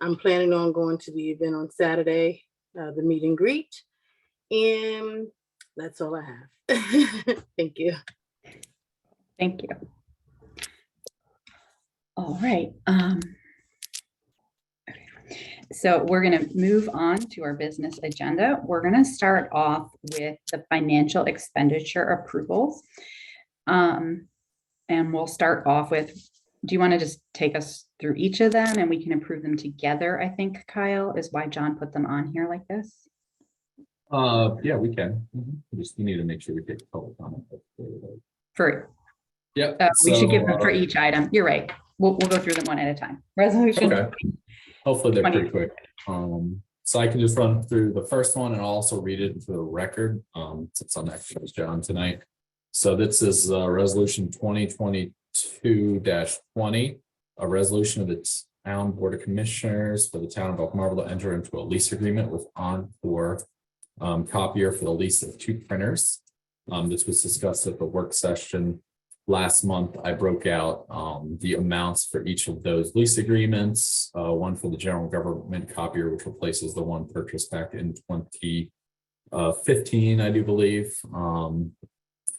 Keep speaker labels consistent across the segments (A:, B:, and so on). A: I'm planning on going to the event on Saturday, uh, the meet and greet. And that's all I have. Thank you.
B: Thank you. All right. um, So we're going to move on to our business agenda. We're going to start off with the financial expenditure approvals. Um, And we'll start off with, do you want to just take us through each of them and we can approve them together? I think Kyle is why John put them on here like this.
C: Uh, yeah, we can.
B: Mm-hmm.
C: Mhm. We Just need to make sure we get public comment.
B: For,
C: Yep.
B: uh, we should give
C: so,
B: them for
C: uh,
B: each item. You're right. We'll, we'll go through them one at a time. Resolution.
C: Okay. Hopefully they're pretty
B: Twenty.
C: quick. Um, so I can just run through the first one and I'll also read it into the record, um, since I'm actually with John tonight. So this is, uh, resolution twenty twenty-two twenty, a resolution of the town board of commissioners for the town of Oak Marble to enter into a lease agreement with Encore um, copier for the lease of two printers. Um, this was discussed at the work session last month, I broke out um the amounts for each of those lease agreements. Uh, one for the general government copier, which replaces the one purchased back in twenty uh fifteen, I do believe. Um,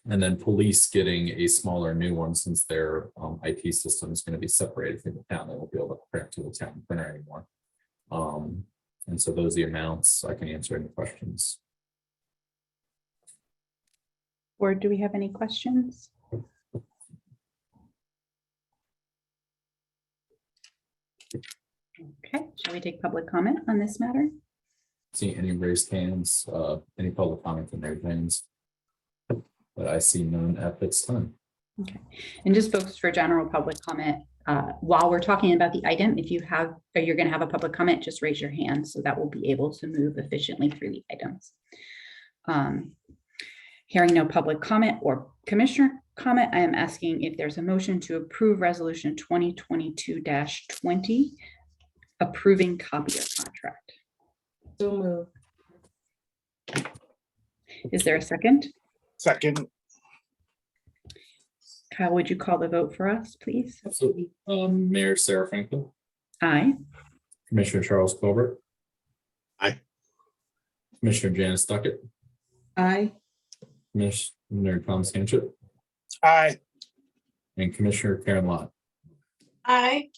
C: and then police getting a smaller new one since their um IT system is going to be separated from the town. They won't be able to print to the town printer anymore. Um, and so those are the amounts. I can answer any questions.
B: Or do we have any questions? Okay, shall we take public comment on this matter?
C: see any raised hands, uh, any public comment on their things. But I see none at this time.
B: And just folks for general public comment, uh, while we're talking about the item, if you have, or you're gonna have a public comment, just raise your hand so that we'll be able to move efficiently through the items. Um, Hearing no public comment or commissioner comment, I am asking if there's a motion to approve resolution twenty twenty-two twenty, approving copier contract.
D: So move.
B: Is there a second?
E: Second,
B: Kyle, would you call the vote for us, please?
C: Absolutely. Um, Mayor Sarah Franklin,
B: Aye.
C: Commissioner Charles Colbert.
E: Aye.
C: Commissioner Janice Duckett,
D: Aye.
C: Commissioner Tom Sanchit,
E: aye,
C: and Commissioner Karen Lott.
A: Aye.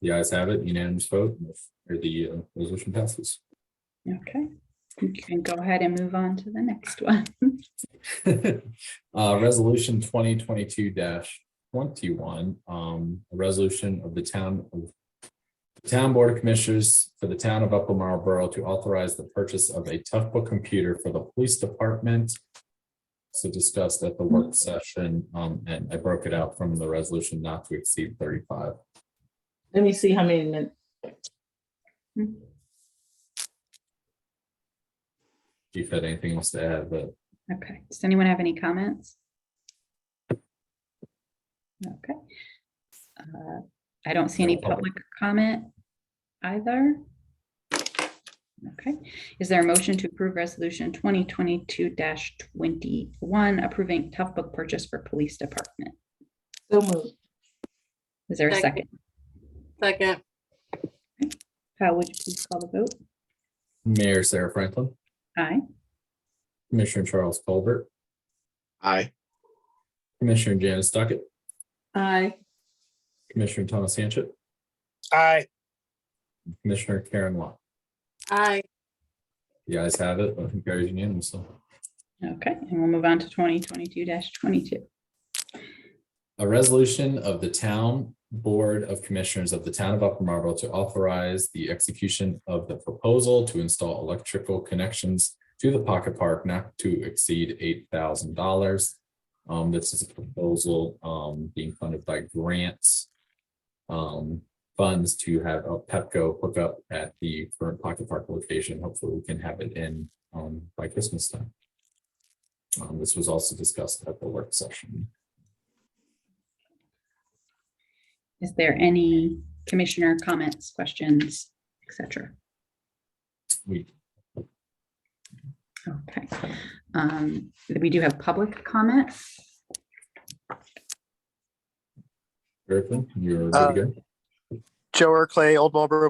C: The ayes have it, unanimous vote, or the uh, resolution passes.
B: Okay, you can go ahead and move on to the next one.
C: Uh, resolution twenty twenty-two twenty-one, um, a resolution of the town of the Town Board of Commissioners for the town of Upper Marlboro to authorize the purchase of a Toughbook computer for the police department. So discussed at the
D: Mm-hmm.
C: work session, um, and I broke it out from the resolution not to exceed thirty-five.
D: Let me see how many, min-
C: If you had anything else to add, but
B: Okay, does anyone have any comments? Okay. Uh, I don't see any
C: No public.
B: public comment either. Okay, is there a motion to approve resolution twenty twenty-two twenty-one approving tough book purchase for police department?
D: so move.
B: Is there a
A: Second.
B: second?
A: Second.
B: Kyle, would you please call the vote?
C: Mayor Sarah Franklin,
B: Aye.
C: Commissioner Charles Colbert,
E: aye,
C: Commissioner Janice Duckett,
D: Aye.
C: Commissioner Thomas Sanchit,
E: aye,
C: Commissioner Karen Lott.
A: Aye.
C: The ayes have it, motion carries unanimously.
B: Okay, and we'll move on to twenty twenty-two twenty-two.
C: A resolution of the Town Board of Commissioners of the Town of Upper Marlboro to authorize the execution of the proposal to install electrical connections to the pocket park not to exceed eight thousand dollars. Um, this is a proposal, um, being funded by grants. um, funds to have a Pepco hook up at the current pocket park location. Hopefully we can have it in, um, by Christmas time. Um, this was also discussed at the work session.
B: Is there any commissioner comments, questions, et cetera?
C: We
B: Okay. Um, We do have public comment.
C: Griffin, you're good
E: Uh,
C: to go.
E: Joe Clay, Old Marlboro